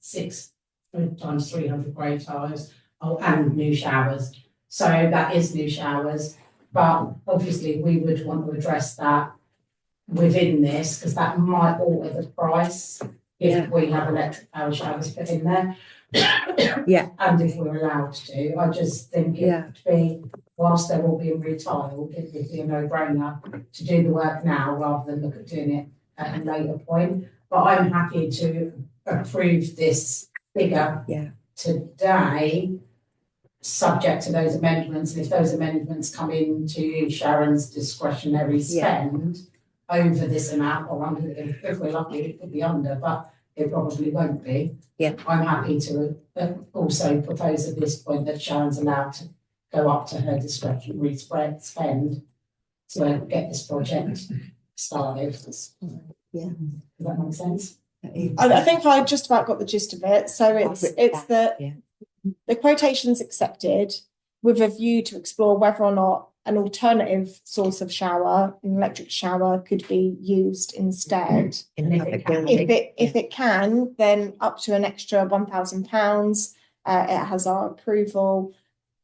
six times three hundred grey tiles, oh, and new showers. So that is new showers, but obviously we would want to address that within this, because that might alter the price if we have electric power showers put in there. Yeah. And if we're allowed to, I just think it Yeah. would be, whilst they're all being retiled, it would be a no-brainer to do the work now rather than look at doing it at a later point. But I'm happy to approve this figure Yeah. today, subject to those amendments, and if those amendments come into Sharon's discretionary Yeah. spend over this amount, or under, if we're lucky, it could be under, but it probably won't be. Yeah. I'm happy to uh, also propose at this point that Sharon's allowed to go up to her discretionary spread, spend to get this project started. Does Yeah. that make sense? That is- I, I think I just about got the gist of it. So it's written it's the yeah. the quotations accepted with a view to explore whether or not an alternative source of shower, an electric shower, could be used instead. In And the if it public can- building. If it if it can, then up to an extra one thousand pounds. Uh, it has our approval.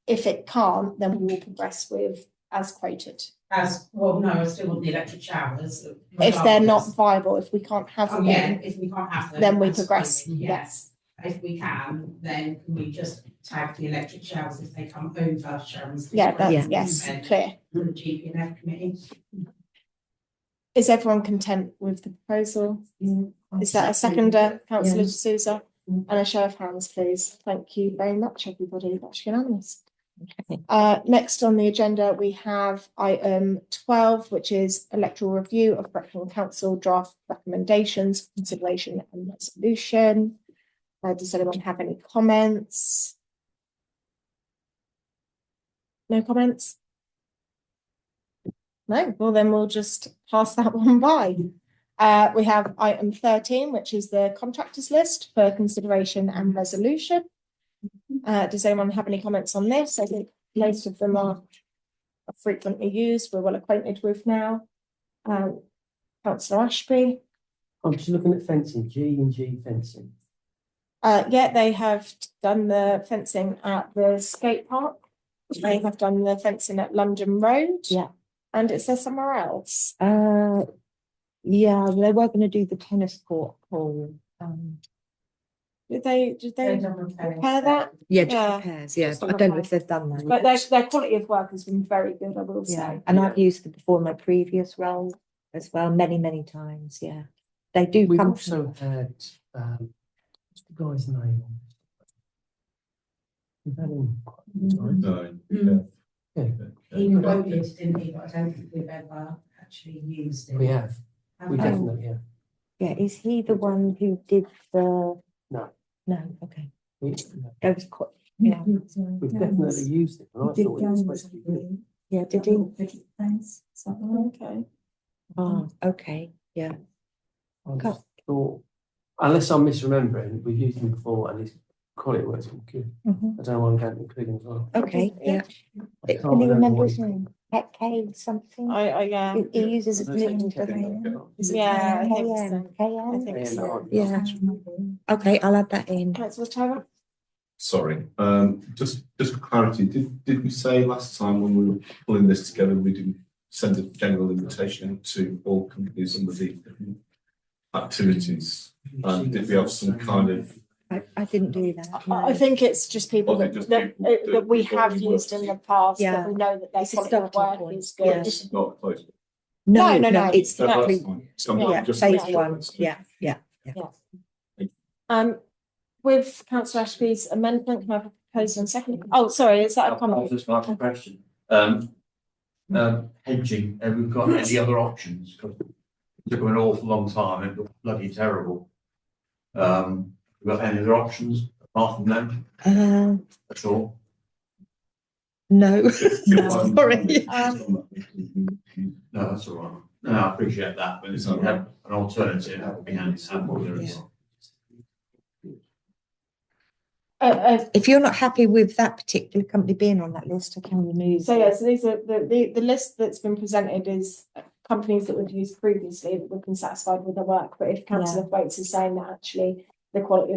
If it can't, then we will progress with as quoted. As, well, no, I still want the electric showers. If they're not viable, if we can't have Oh, them, yeah, if we can't have them. then we that's progress. fine, Yes, if we can, then can we just tag the electric showers if they come over Sharon's. yeah, discretion that's yes, and clear. The GPNF committee. Is everyone content with the proposal? Is that a seconder, councillor De Souza? Mm. And a show of hands, please. Thank you very much, everybody. That's unanimous. Okay. Uh, next on the agenda, we have item twelve, which is electoral review of Brecon Council draft recommendations, for consideration and resolution. Uh, does anyone have any comments? No comments? No, well then we'll just pass that one by. Uh, we have item thirteen, which is the contractors list for consideration and resolution. Uh, does anyone have any comments on this? I think most of them are are frequently used, we're well acquainted with now. Um, councillor Ashby, I'm just looking at fencing, G and G fencing. uh, yeah, they have done the fencing at the skate park. They have done the fencing at London Road. Yeah. And it's there somewhere else. Uh, yeah, they were going to do the tennis court hall. Um, Did they, did they, Repair repair that? yeah, just Yeah. repairs. Yeah, Just but on I the don't know if they've done that. but their, their quality of work has been very good, I will yeah, say. and I've used them before in my previous role as well, many, many times. Yeah, they do We've come. also had, um, what's the guy's name? on this? We've had him quite a few times. No. Mm. yeah. He quoted, didn't he, but I don't think we've ever actually used it. We have, Have we we? definitely have. Yeah, is he the one who did the? No. No. Okay, We- that was quite. Yeah, We've definitely used it, and I thought it was supposed to be good. yeah. Did he? Okay. Oh, okay. Yeah. I just thought, unless I'm misremembering, we've used him before and his quality works been good. Mm-hmm. I don't know why I'm going to include him as well. Okay. Yeah. I Can can't you remember what his name? Pet K something. I, I, um, yeah. He- He uses his I don't name. think doesn't he? Is it Yeah, I think KM, I KM? think Yeah, so. no, Yeah. Okay, I'll add that in. Councillor Tyra? Sorry, um, just, just for clarity, did, did we say last time when we were pulling this together, we didn't send a general invitation out to all companies under the different activities? Um, did we have some kind of- I, I didn't do that. I, I no. think it's just people Well, that, it just that, people uh, that- that we that we have work used in the with. past, Yeah. that we know that their It's a quality of starting work point, is yeah. good. This is not close. No, no, no. It's No, that's definitely, fine. So I'm yeah, just- phase one. Yeah, yeah. Um, with councillor Ashby's amendment, can I have a proposal and second? Oh, sorry, is that a I'll comment? just ask a question. Um, um, hedging, have we got any other options? 'Cause It took them an awful long time, it looked bloody terrible. Um, we got any other options apart from that Uh, at all? no. Sorry. No, that's all right. No, I appreciate that, but it's not an alternative, that would be handy to have one there as well. Uh, uh, If you're not happy with that particular company being on that list, I can remove. so it. yeah, so these are, the, the, the list that's been presented is companies that we've used previously that we've been satisfied with their work, but if councillor Thwaites is saying that actually the quality of